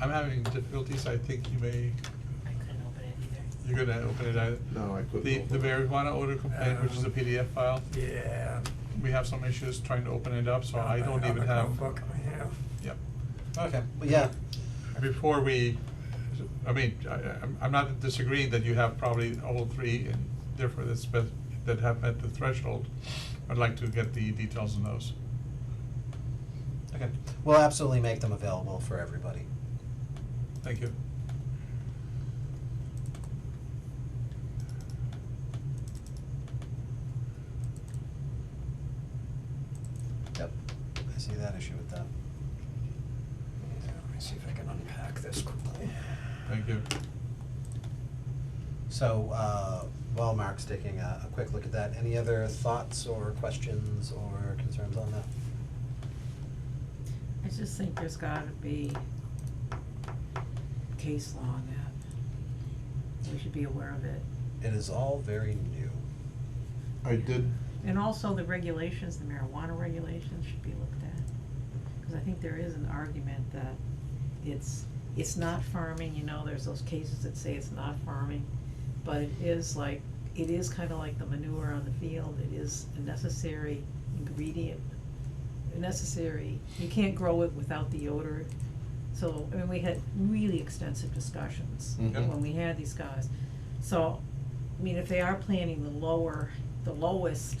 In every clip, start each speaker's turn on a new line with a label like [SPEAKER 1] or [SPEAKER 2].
[SPEAKER 1] I'm having difficulties, I think you may,
[SPEAKER 2] I couldn't open it either.
[SPEAKER 1] you're gonna open it either.
[SPEAKER 3] No, I couldn't
[SPEAKER 1] The-
[SPEAKER 3] open
[SPEAKER 1] The
[SPEAKER 3] it.
[SPEAKER 1] marijuana odor complaint, which is a
[SPEAKER 4] Um,
[SPEAKER 1] PDF file,
[SPEAKER 4] Yeah.
[SPEAKER 1] we have some issues trying to open it up, so I don't even have.
[SPEAKER 4] Book I have.
[SPEAKER 1] Yep.
[SPEAKER 5] Okay, well, yeah,
[SPEAKER 1] Before we, I mean, I, I'm, I'm not disagreeing that you have probably all three and therefore that's best, that have met the threshold. I'd like to get the details on those.
[SPEAKER 5] okay, we'll absolutely make them available for everybody.
[SPEAKER 1] Thank you.
[SPEAKER 5] Yep. I see that issue with that.
[SPEAKER 4] Yeah, Let me see if I can unpack this quickly.
[SPEAKER 1] Thank you.
[SPEAKER 5] So, uh, while Mark's taking a, a quick look at that, any other thoughts or questions or concerns on that?
[SPEAKER 2] I just think there's gotta be case law on that. We should be aware of it.
[SPEAKER 5] It is all very new.
[SPEAKER 3] I did,
[SPEAKER 2] And also the regulations, the marijuana regulations should be looked at. Cause I think there is an argument that it's, it's not farming, you know, there's those cases that say it's not farming. But it is like, it is kinda like the manure on the field, it is a necessary ingredient, a necessary, you can't grow it without the odor. So, I mean, we had really extensive discussions
[SPEAKER 3] Mhm.
[SPEAKER 2] when we had these guys. So, I mean, if they are planting the lower, the lowest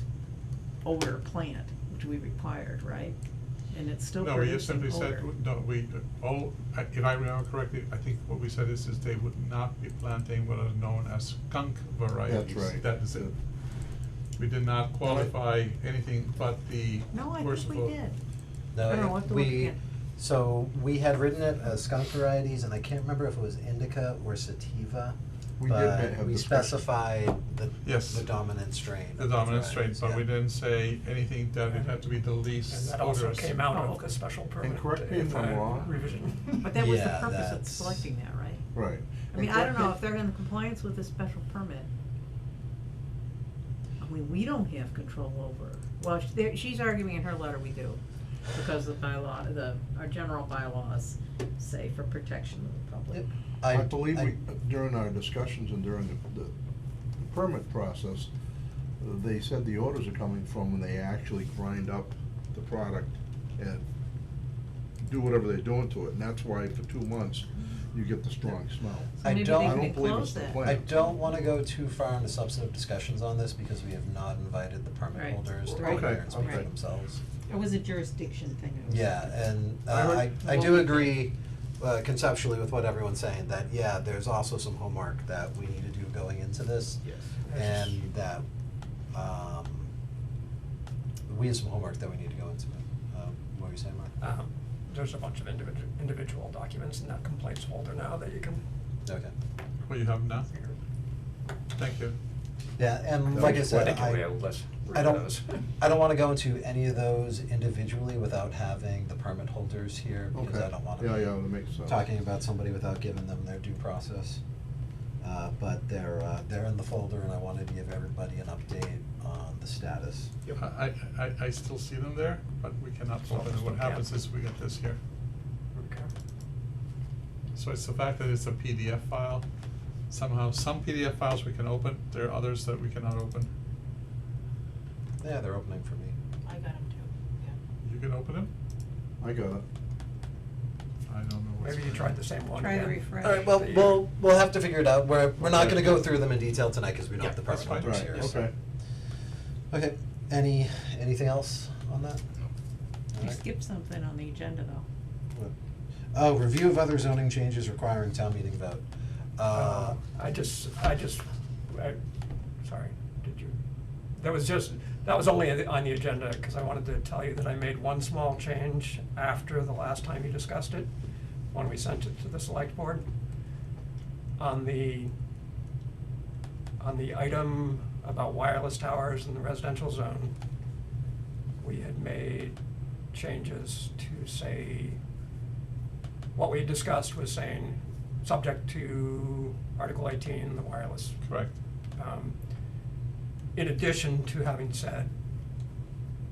[SPEAKER 2] odor plant, which we required, right? And it's still
[SPEAKER 1] No, we just
[SPEAKER 2] producing
[SPEAKER 1] simply said,
[SPEAKER 2] odor.
[SPEAKER 1] no, we, all, I- if I remember correctly, I think what we said is, is they would not be planting what are known as skunk varieties.
[SPEAKER 3] right.
[SPEAKER 1] That is it. We did not qualify anything but the
[SPEAKER 2] No, I
[SPEAKER 1] worst
[SPEAKER 2] think we
[SPEAKER 1] of all.
[SPEAKER 2] did.
[SPEAKER 5] No,
[SPEAKER 2] I don't know,
[SPEAKER 5] it-
[SPEAKER 2] we'll have to look
[SPEAKER 5] we,
[SPEAKER 2] again.
[SPEAKER 5] so we had written it as skunk varieties, and I can't remember if it was indica or sativa.
[SPEAKER 3] We did
[SPEAKER 5] but
[SPEAKER 3] have
[SPEAKER 5] we
[SPEAKER 3] discussion.
[SPEAKER 5] specified the,
[SPEAKER 1] Yes.
[SPEAKER 5] the dominant strain.
[SPEAKER 1] The
[SPEAKER 5] of the
[SPEAKER 1] dominant strain,
[SPEAKER 5] varieties,
[SPEAKER 1] but we
[SPEAKER 5] yeah.
[SPEAKER 1] didn't say anything that it had to be the
[SPEAKER 4] And
[SPEAKER 1] least odorous.
[SPEAKER 4] that also came out
[SPEAKER 2] Oh,
[SPEAKER 4] of
[SPEAKER 2] okay.
[SPEAKER 4] the special permit
[SPEAKER 3] And correct me if I'm
[SPEAKER 4] uh,
[SPEAKER 3] wrong.
[SPEAKER 4] revision.
[SPEAKER 2] But that was the
[SPEAKER 5] Yeah,
[SPEAKER 2] purpose of
[SPEAKER 5] that's-
[SPEAKER 2] selecting that, right?
[SPEAKER 3] right.
[SPEAKER 2] I mean, I don't know if they're in compliance with the special permit. I mean, we don't have control over, well, sh- there, she's arguing in her letter we do, because the bylaw, the, our general bylaws say for protection of the public.
[SPEAKER 5] Yep.
[SPEAKER 3] I believe we, during our discussions and during the, the the permit process, uh, they said the orders are coming from when they actually grind up the product and do whatever they're doing to it, and that's why for two months,
[SPEAKER 2] Mm-hmm.
[SPEAKER 3] you get the strong smell.
[SPEAKER 2] So
[SPEAKER 5] I
[SPEAKER 2] maybe
[SPEAKER 5] don't-
[SPEAKER 2] they
[SPEAKER 5] I
[SPEAKER 2] could
[SPEAKER 3] don't believe
[SPEAKER 2] close
[SPEAKER 3] it's the
[SPEAKER 2] that.
[SPEAKER 3] plan.
[SPEAKER 5] I don't wanna go too far into substantive discussions on this because we have not invited the
[SPEAKER 2] Right.
[SPEAKER 5] permit holders to
[SPEAKER 3] Right.
[SPEAKER 5] come here
[SPEAKER 3] Okay,
[SPEAKER 5] and speak for
[SPEAKER 2] okay.
[SPEAKER 5] themselves.
[SPEAKER 2] It was a jurisdiction thing. it was-
[SPEAKER 5] Yeah, and
[SPEAKER 3] I
[SPEAKER 5] uh, I,
[SPEAKER 3] heard-
[SPEAKER 5] I do agree uh, conceptually with what everyone's saying, that, yeah, there's also some homework that we need to do going into this.
[SPEAKER 3] Yes.
[SPEAKER 5] And that, um, we have some homework that we need to go into. Um, What were you saying, Mark?
[SPEAKER 4] Um, There's a bunch of individual, individual documents in that complaints folder now that you can.
[SPEAKER 5] Okay.
[SPEAKER 1] Well, you have now. Thank you.
[SPEAKER 5] Yeah, and like I said, I. I don't, I don't wanna go into any of those individually without having the permit holders here, because
[SPEAKER 3] Okay.
[SPEAKER 5] I don't wanna
[SPEAKER 3] Yeah, yeah,
[SPEAKER 5] be
[SPEAKER 3] that makes sense.
[SPEAKER 5] talking about somebody without giving them their due process. Uh, but they're, uh, they're in the folder, and I wanted to give everybody an update on the status.
[SPEAKER 1] I, I- I, I still see them there, but we cannot vote, and what happens is we get this here. So it's the fact that it's a PDF file, somehow, some PDF files we can open, there are others that we cannot open.
[SPEAKER 5] Yeah, they're opening for me.
[SPEAKER 2] I got them too,
[SPEAKER 1] You can open them?
[SPEAKER 3] I got it.
[SPEAKER 1] I don't know what's.
[SPEAKER 4] Maybe you tried the same one.
[SPEAKER 2] Try the
[SPEAKER 4] again.
[SPEAKER 2] refresh.
[SPEAKER 5] Alright, well,
[SPEAKER 4] That you-
[SPEAKER 5] we'll, we'll have to figure it out, we're, we're not
[SPEAKER 3] Okay.
[SPEAKER 5] gonna go through them in detail tonight, cause we don't have the
[SPEAKER 1] Yeah, that's
[SPEAKER 5] permit holders
[SPEAKER 3] fine.
[SPEAKER 5] here,
[SPEAKER 3] Right,
[SPEAKER 5] so.
[SPEAKER 3] okay.
[SPEAKER 5] Okay, any, anything else on that?
[SPEAKER 2] yeah. You
[SPEAKER 5] Alright.
[SPEAKER 2] skipped something on the agenda though.
[SPEAKER 5] Oh, review of other zoning changes requiring town meeting vote. Uh,
[SPEAKER 4] Uh, I just, I just, I, sorry, did you? That was just, that was only on the- on the agenda, because I wanted to tell you that I made one small change after the last time you discussed it, when we sent it to the select board. On the, on the item about wireless towers in the residential zone, we had made changes to say, what we had discussed was saying, subject to Article eighteen, the wireless
[SPEAKER 1] Correct.
[SPEAKER 4] um, in addition to having said,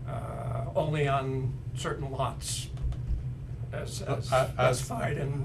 [SPEAKER 4] uh, only on certain lots as, as
[SPEAKER 1] Uh, as-
[SPEAKER 4] specified in